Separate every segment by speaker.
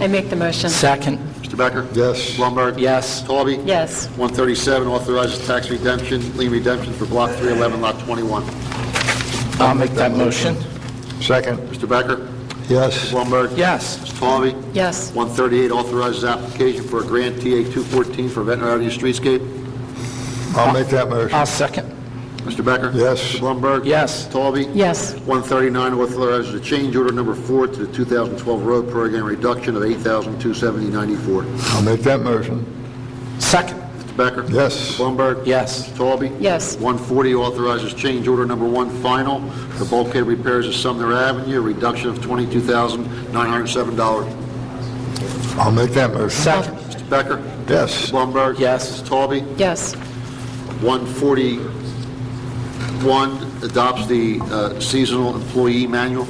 Speaker 1: I make the motion.
Speaker 2: Second,
Speaker 3: Mr. Becker?
Speaker 4: Yes.
Speaker 3: Blumberg?
Speaker 2: Yes.
Speaker 3: Talby?
Speaker 1: Yes.
Speaker 3: 137 authorizes tax redemption, lien redemption for Block 311, Lot 21.
Speaker 2: I'll make that motion.
Speaker 4: Second.
Speaker 3: Mr. Becker?
Speaker 4: Yes.
Speaker 3: Blumberg?
Speaker 2: Yes,
Speaker 3: Mr. Talby?
Speaker 1: Yes.
Speaker 3: 138 authorizes application for a grant TA 214 for Ventnor Avenue streetscape.
Speaker 4: I'll make that motion.
Speaker 2: I'll second.
Speaker 3: Mr. Becker?
Speaker 4: Yes.
Speaker 3: Mr. Blumberg?
Speaker 2: Yes.
Speaker 3: Talby?
Speaker 1: Yes.
Speaker 3: 139 authorizes a change order number four to the 2012 road program reduction of 8270 Mr.
Speaker 4: I'll make that motion.
Speaker 2: Second,
Speaker 3: Becker?
Speaker 4: Yes.
Speaker 3: Mr. Blumberg?
Speaker 2: yes,
Speaker 3: Talby?
Speaker 1: Yes.
Speaker 3: 140 authorizes change order number one final for bulkhead repairs at Sumner Avenue, reduction of $22,907.
Speaker 4: I'll make that motion.
Speaker 2: second,
Speaker 3: Mr. Becker?
Speaker 4: Yes.
Speaker 3: Blumberg?
Speaker 2: Yes.
Speaker 3: Mrs. Talby?
Speaker 1: Yes.
Speaker 3: 141 adopts the uh, seasonal employee manual.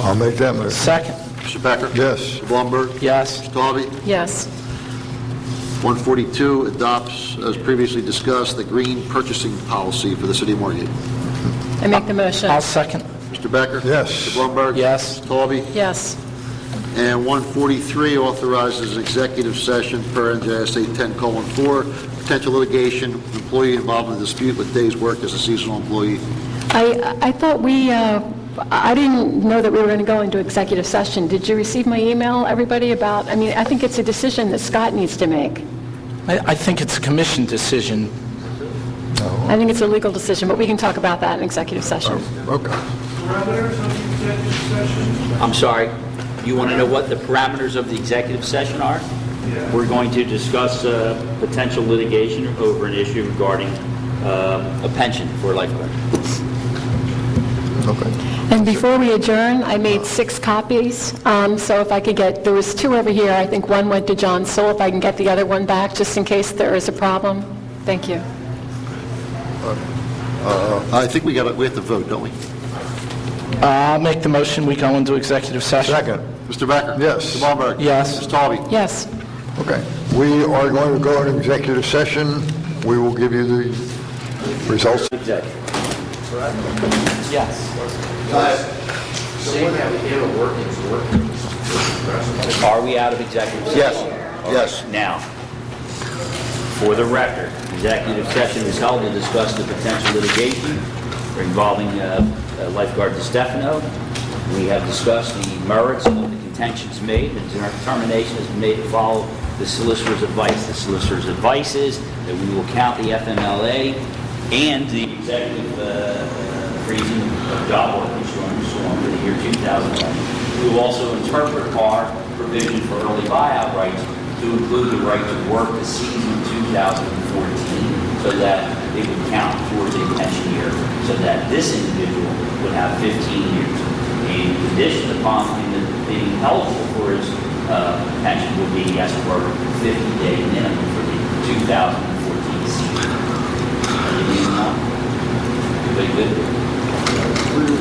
Speaker 4: I'll make that motion.
Speaker 2: second,
Speaker 3: Mr. Becker?
Speaker 4: Yes.
Speaker 3: Mr. Blumberg?
Speaker 2: yes,
Speaker 3: Mrs. Talby?
Speaker 1: Yes.
Speaker 3: 142 adopts, as previously discussed, the green purchasing policy for the city of Margate.
Speaker 1: I make the motion.
Speaker 2: I'll second.
Speaker 3: Mr. Becker?
Speaker 4: Yes.
Speaker 3: Mr. Blumberg?
Speaker 2: Yes.
Speaker 3: Mrs. Talby?
Speaker 1: Yes.
Speaker 3: And 143 authorizes an executive session per NJSA 10:4, potential litigation, employee involved in dispute with day's work as a seasonal employee.
Speaker 5: I, I thought we, uh, I didn't know that we were going to go into executive session. Did you receive my email, everybody, about, I mean, I think it's a decision that Scott needs to make.
Speaker 2: I, I think it's a commission decision.
Speaker 5: I think it's a legal decision, but we can talk about that in executive session.
Speaker 4: Um, Okay.
Speaker 6: parameters of the executive session?
Speaker 7: I'm sorry, you want to know what the parameters of the executive session are? We're going to discuss uh, potential litigation over an issue regarding uh, a pension for lifeguards.
Speaker 4: Okay.
Speaker 5: And before we adjourn, I made six copies, um, so if I could get, there was two over here, I think one went to John Soul, if I can get the other one back, just in case there is a problem. Thank you.
Speaker 3: I think we got, to we have to vote, don't we?
Speaker 2: Uh, I'll make the motion, we go into executive session.
Speaker 4: Second.
Speaker 3: Mr. Becker?
Speaker 4: Yes.
Speaker 3: Mr. Blumberg?
Speaker 2: Yes.
Speaker 3: Mrs. Talby?
Speaker 5: Yes.
Speaker 4: Okay. We are going to go into executive session. We will give you the results.
Speaker 7: Executive. Yes. Are we out of executive session?
Speaker 3: Yes. Yes.
Speaker 7: Now, for the record, executive session is held to discuss the potential litigation involving uh, lifeguard DiStefano. We have discussed the merits of the contentions made, the determination has been made to follow the solicitor's advice. The solicitor's advice is that we will count the FMLA and the executive uh, freezing of job workers during the storm for the year 2011. We will also interpret our provision for early buyout rights to include the right to work the season 2014, so that it would count towards a pension year, so that this individual would have 15 years. The condition upon him being eligible for his uh, pension would be he has to work 50-day minimum for the 2014 season. Anything else? Everybody good?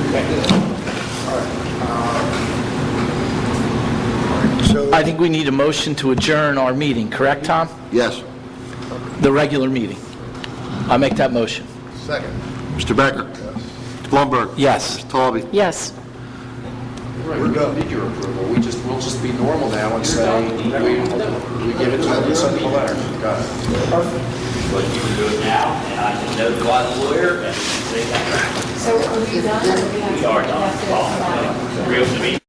Speaker 2: I think we need a motion to adjourn our meeting, correct, Tom?
Speaker 3: Yes.
Speaker 2: The regular meeting. I'll make that motion.
Speaker 4: Second.
Speaker 3: Mr. Becker? Mr. Blumberg?
Speaker 2: Yes.
Speaker 3: Mrs. Talby?
Speaker 1: Yes.
Speaker 8: Right, we don't need your approval, we just, we'll just be normal now and say, we, we give it to them, we send them a letter, got it.
Speaker 7: But you can do it now, and I can notify the lawyer, and say that.
Speaker 9: So are we done? or do we have-
Speaker 7: We are
Speaker 9: we
Speaker 7: done.
Speaker 9: have to-
Speaker 7: Well, uh, Reopen the meeting.